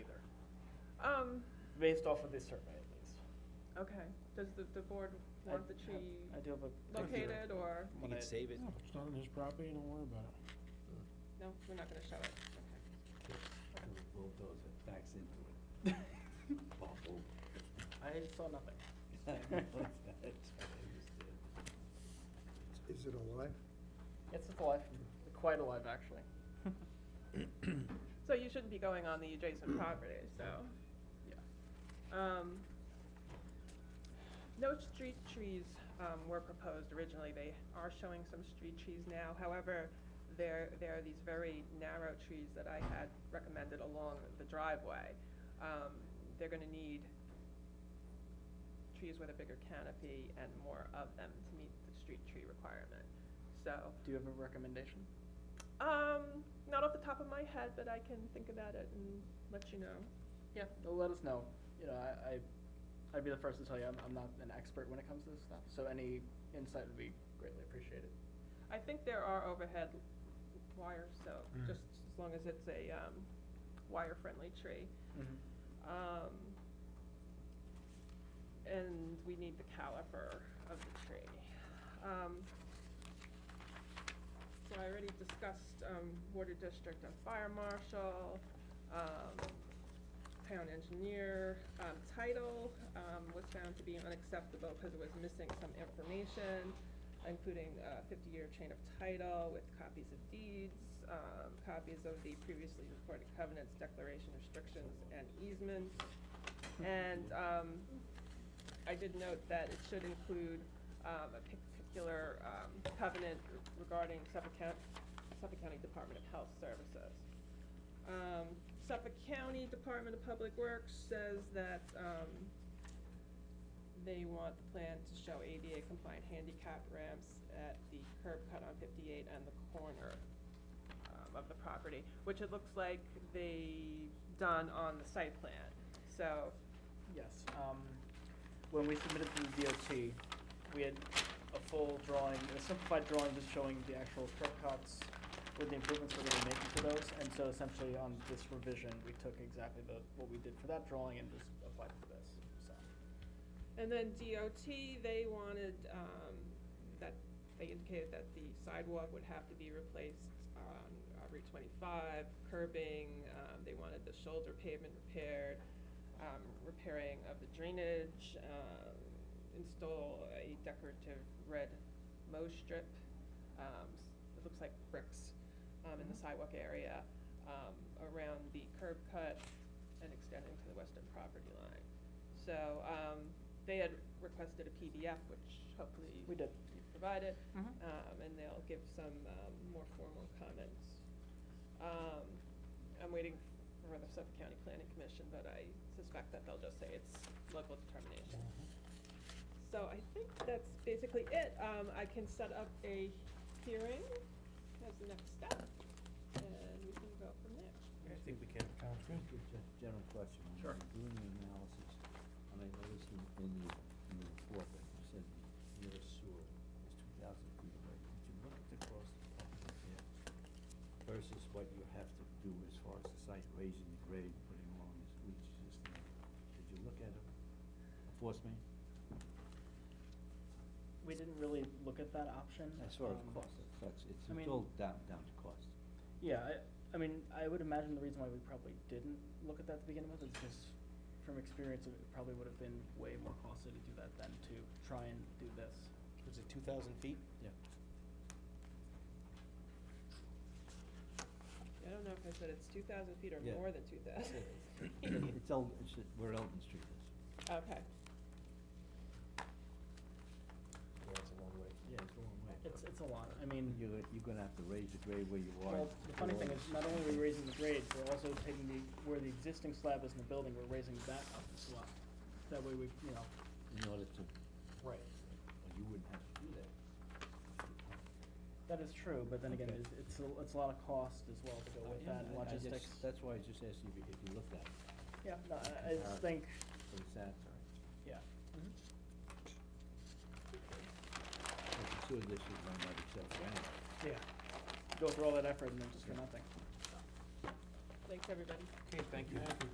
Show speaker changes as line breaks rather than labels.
based off of this survey at least.
Um, Okay, does the, the board
I
want the
have-
tree
I do have a. picture.
located or,
You
When I-
can save it.
Yeah,
Oh,
if it's not on his property, don't worry about it.
no, we're not gonna show it, okay.
Bulldozer backs into it. Bubble.
I saw nothing.
That's what I understood.
Is it alive?
It's alive, quite alive, actually.
So you shouldn't be going on the adjacent property, so, yeah. Um, no street trees, um, were proposed originally, they are showing some street trees now, however, there, there are these very narrow trees that I had recommended along the driveway. Um, they're gonna need trees with a bigger canopy and more of them to meet the street tree requirement, so.
Do you have a recommendation?
Um, not off the top of my head, but I can think about it and let you know.
Yeah, well, let us know. You know, I, I, I'd be the first to tell you, I'm, I'm not an expert when it comes to this stuff, so any insight would be greatly appreciated.
I think there are overhead wires, so
Mm.
just as long as it's a, um, wire-friendly tree.
Mm-hmm.
Um, and we need the caliper of the tree. Um, so I already discussed, um, water district and fire marshal, um, town engineer, um, title, um, was found to be unacceptable because it was missing some information, including a fifty-year chain of title with copies of deeds, um, copies of the previously recorded covenants, declaration, restrictions, and easements. And, um, I did note that it should include, um, a particular, um, covenant regarding Suffolk County, Suffolk County Department of Health Services. Um, Suffolk County Department of Public Works says that, um, they want the plan to show ADA compliant handicap ramps at the curb cut on fifty-eight and the corner, um, of the property, which it looks like they done on the site plan. So,
Yes, um, when we submitted to the DOT, we had a full drawing, a simplified drawing just showing the actual curb cuts with the improvements we're gonna be making to those, and so essentially on this revision, we took exactly the, what we did for that drawing and just applied it to this, so.
And then DOT, they wanted, um, that, they indicated that the sidewalk would have to be replaced on uh, Route twenty-five, curbing, um, they wanted the shoulder pavement repaired, um, repairing of the drainage, um, install a decorative red mow strip, um, s- it looks like bricks, um, in the sidewalk area, um, around the curb cut and extending to the western property line. So, um, they had requested a PDF, which hopefully
We did.
you provided,
Mhm.
um, and they'll give some, um, more formal comments. Um, I'm waiting for the Suffolk County Planning Commission, but I suspect that they'll just say it's local determination. So I think that's basically it. Um, I can set up a hearing as the next step, and we can go from there.
I think we can.
Sounds good.
Just a General question. When
Sure.
you're Doing the analysis, and I noticed in, in the, in the report that you said the nearest sewer is two thousand feet away. Did you look at the cost of pumping it there versus what you have to do as far as the site raising the grade, putting along this leach system? Did you look at a, a force main?
We didn't really look at that option.
As far as
um,
cost, that's- that's, it's
I mean-
it's all down, down to cost.
Yeah, I, I mean, I would imagine the reason why we probably didn't look at that to begin with is just from experience, it probably would have been way more costly to do that than to try and do this.
Was it two thousand feet?
Yeah.
I don't know if I said it's two thousand feet or
Yeah.
more than two thousand.
It's El, it's where Eldon Street is.
Okay.
Yeah, it's a long way.
Yeah, it's a long way.
It's, it's a lot, I mean,
You're, you're gonna have to raise the grade where you are.
well, the funny thing is, not only are we raising the grades, we're also taking the, where the existing slab is in the building, we're raising that up as well. That way we, you know.
In order to,
Right.
well, you wouldn't have to do that.
That is true, but then again,
Okay.
it's, it's, a- it's a lot of cost as well to go with that, and
I- I just-
logistics.
That's why I just asked you if you- if you looked at it,
Yeah, no, I, I just think,
for the sad, sorry.
yeah.
I'm sure this is run by itself anyway.
Yeah. Go through all that effort and then just for nothing.
Thanks, everybody.
Okay, thank you.